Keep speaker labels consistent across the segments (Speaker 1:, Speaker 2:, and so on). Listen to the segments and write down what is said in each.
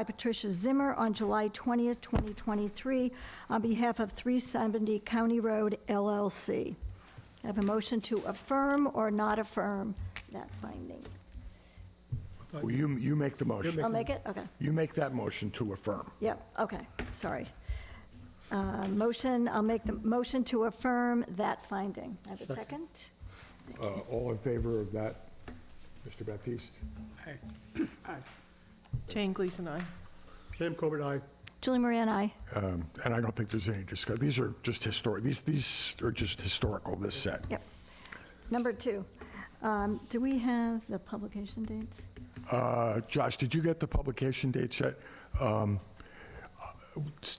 Speaker 1: by Patricia Zimmer on July 20th, 2023, on behalf of 370 County Road LLC. Have a motion to affirm or not affirm that finding?
Speaker 2: Well, you, you make the
Speaker 1: I'll
Speaker 2: motion.
Speaker 1: make it, okay.
Speaker 2: You make that motion to affirm.
Speaker 1: Yep, okay, sorry. Uh, Motion, I'll make the motion to affirm that finding. I have a second?
Speaker 2: Uh, All in favor of that, Mr. Baptiste?
Speaker 3: Jane Gleason, aye.
Speaker 4: Sam Corbett, aye.
Speaker 1: Julie Marie and I.
Speaker 2: Um, And I don't think there's any discuss, these are just historic, these, these are just historical, this set.
Speaker 1: Yep. Number two, um, do we have the publication dates?
Speaker 2: Uh, Josh, did you get the publication dates yet? Um,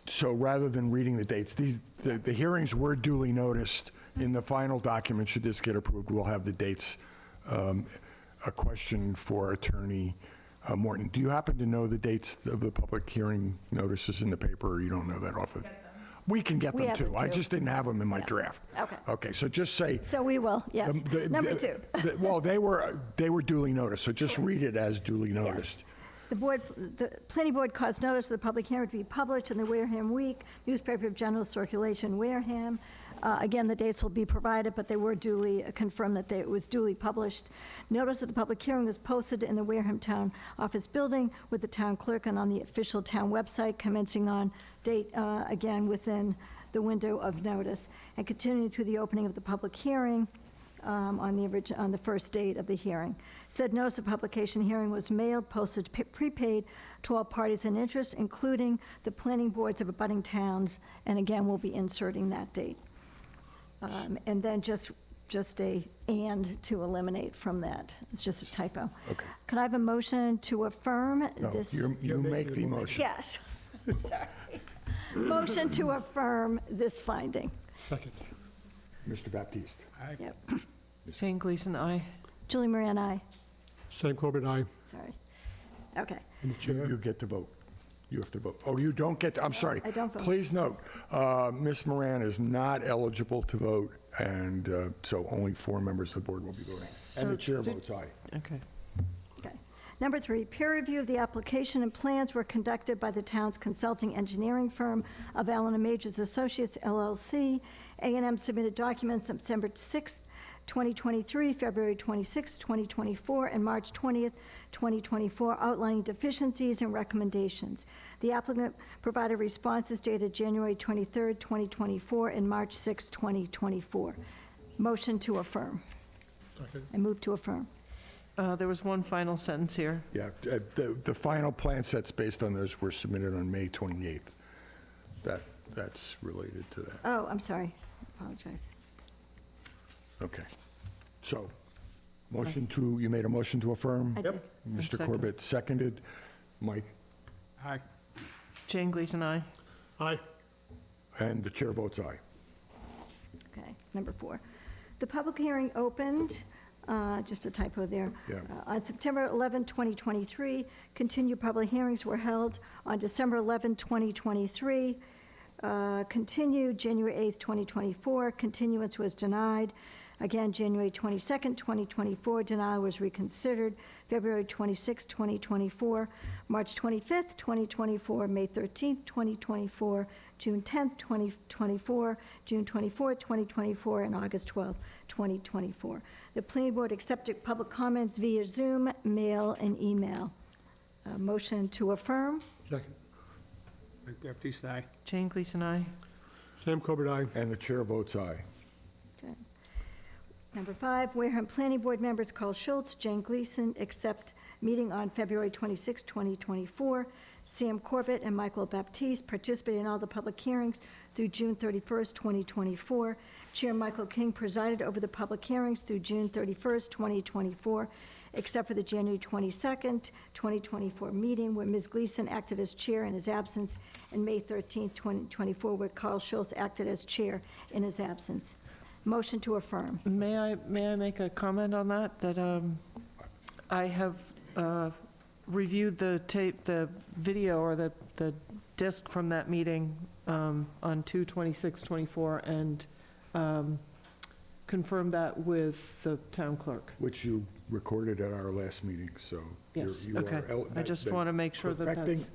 Speaker 2: So rather than reading the dates, these, the, the hearings were duly noticed. In the final document, should this get approved, we'll have the dates. Um, A question for Attorney uh, Morton. Do you happen to know the dates of the public hearing notices in the paper, or you don't know that off the? We can get
Speaker 1: We
Speaker 2: them
Speaker 1: have
Speaker 2: too.
Speaker 1: them,
Speaker 2: I
Speaker 1: too.
Speaker 2: just didn't have them in my draft.
Speaker 1: Okay.
Speaker 2: Okay, so just say.
Speaker 1: So we will, yes.
Speaker 2: Um, the-
Speaker 1: Number
Speaker 2: the-
Speaker 1: two,
Speaker 2: the- Well, they were, they were duly noticed, so just read it as duly noticed.
Speaker 1: the board, the planning board caused notice of the public hearing to be published in the Wareham Week, newspaper of general circulation, Wareham. Uh, Again, the dates will be provided, but they were duly, confirmed that they- it was duly published. Notice of the public hearing was posted in the Wareham Town Office Building with the town clerk and on the official town website commencing on date, uh, again, within the window of notice, and continuing through the opening of the public hearing um, on the orig, on the first date of the hearing. Said notice of publication hearing was mailed, postage pe- prepaid to all parties in interest, including the planning boards of abutting towns, and again, we'll be inserting that date. Um, And then just, just a "and" to eliminate from that, it's just a typo. Okay. Could I have a motion to affirm
Speaker 2: No,
Speaker 1: this?
Speaker 2: you're- You make the motion.
Speaker 1: Yes, sorry. Motion to affirm this finding.
Speaker 4: Second.
Speaker 2: Mr. Baptiste?
Speaker 1: Yep.
Speaker 3: Jane Gleason, aye.
Speaker 1: Julie Marie and I,
Speaker 4: Sam Corbett, aye.
Speaker 1: sorry. Okay.
Speaker 4: And the
Speaker 2: You
Speaker 4: chair.
Speaker 2: you get to vote. You have to vote. Oh, you don't get, to- I'm sorry.
Speaker 1: I don't vote.
Speaker 2: Please note, uh, Ms. Moran is not eligible to vote, and uh, so only four members of the board will be voting. And
Speaker 3: So
Speaker 2: the chair
Speaker 3: did-
Speaker 2: votes aye.
Speaker 3: Okay.
Speaker 1: Okay. Number three, peer review of the application and plans were conducted by the town's consulting engineering firm of Allen and Majors Associates LLC. a and M submitted documents September 6, 2023, February 26, 2024, and March 20th, 2024, outlining deficiencies and recommendations. The applicant provided responses dated January 23, 2024, and March 6, 2024. Motion to affirm.
Speaker 4: Second.
Speaker 1: I move to affirm.
Speaker 3: Uh, There was one final sentence here.
Speaker 2: Yeah, uh, the, the final plan sets based on those were submitted on May 28th. That, that's related to that.
Speaker 1: Oh, I'm sorry. Apologize.
Speaker 2: Okay. So, motion to, you made a motion to affirm?
Speaker 1: I
Speaker 4: Yep.
Speaker 1: did.
Speaker 2: Mr.
Speaker 3: second.
Speaker 2: Corbett seconded. Mike,
Speaker 4: Aye.
Speaker 3: Jane Gleason, aye.
Speaker 4: Aye.
Speaker 2: and the chair votes aye.
Speaker 1: Okay, number four. The public hearing opened, uh, just a typo there.
Speaker 2: Yeah.
Speaker 1: Uh, On September 11, 2023, continued public hearings were held on December 11, 2023. uh, Continued January 8, 2024, continuance was denied. Again, January 22, 2024, denial was reconsidered. February 26, 2024, March 25, 2024, May 13, 2024, June 10, 2024, June 24, 2024, and August 12, 2024. The planning board accepted public comments via Zoom, mail, and email. A motion to affirm?
Speaker 4: Second.
Speaker 5: Mike Baptiste, aye.
Speaker 3: Jane Gleason, aye.
Speaker 4: Sam Corbett, aye.
Speaker 2: And the chair votes aye.
Speaker 1: Okay. Number five, Wareham Planning Board members Carl Schultz, Jane Gleason, accept meeting on February 26, 2024. Sam Corbett and Michael Baptiste participated in all the public hearings through June 31st, 2024. Chair Michael King presided over the public hearings through June 31st, 2024, except for the January 22nd, 2024 meeting where Ms. Gleason acted as chair in his absence, and May 13th, 2024, where Carl Schultz acted as chair in his absence. Motion to affirm.
Speaker 3: May I, may I make a comment on that? That um, I have uh, reviewed the tape, the video or the, the disc from that meeting um, on 2/26/24 and um, confirmed that with the town clerk.
Speaker 2: Which you recorded at our last meeting, so. you're-
Speaker 3: Yes,
Speaker 2: you are
Speaker 3: okay.
Speaker 2: el-
Speaker 3: I
Speaker 2: that-
Speaker 3: just
Speaker 2: that-
Speaker 3: want to make sure that that's.
Speaker 2: perfecting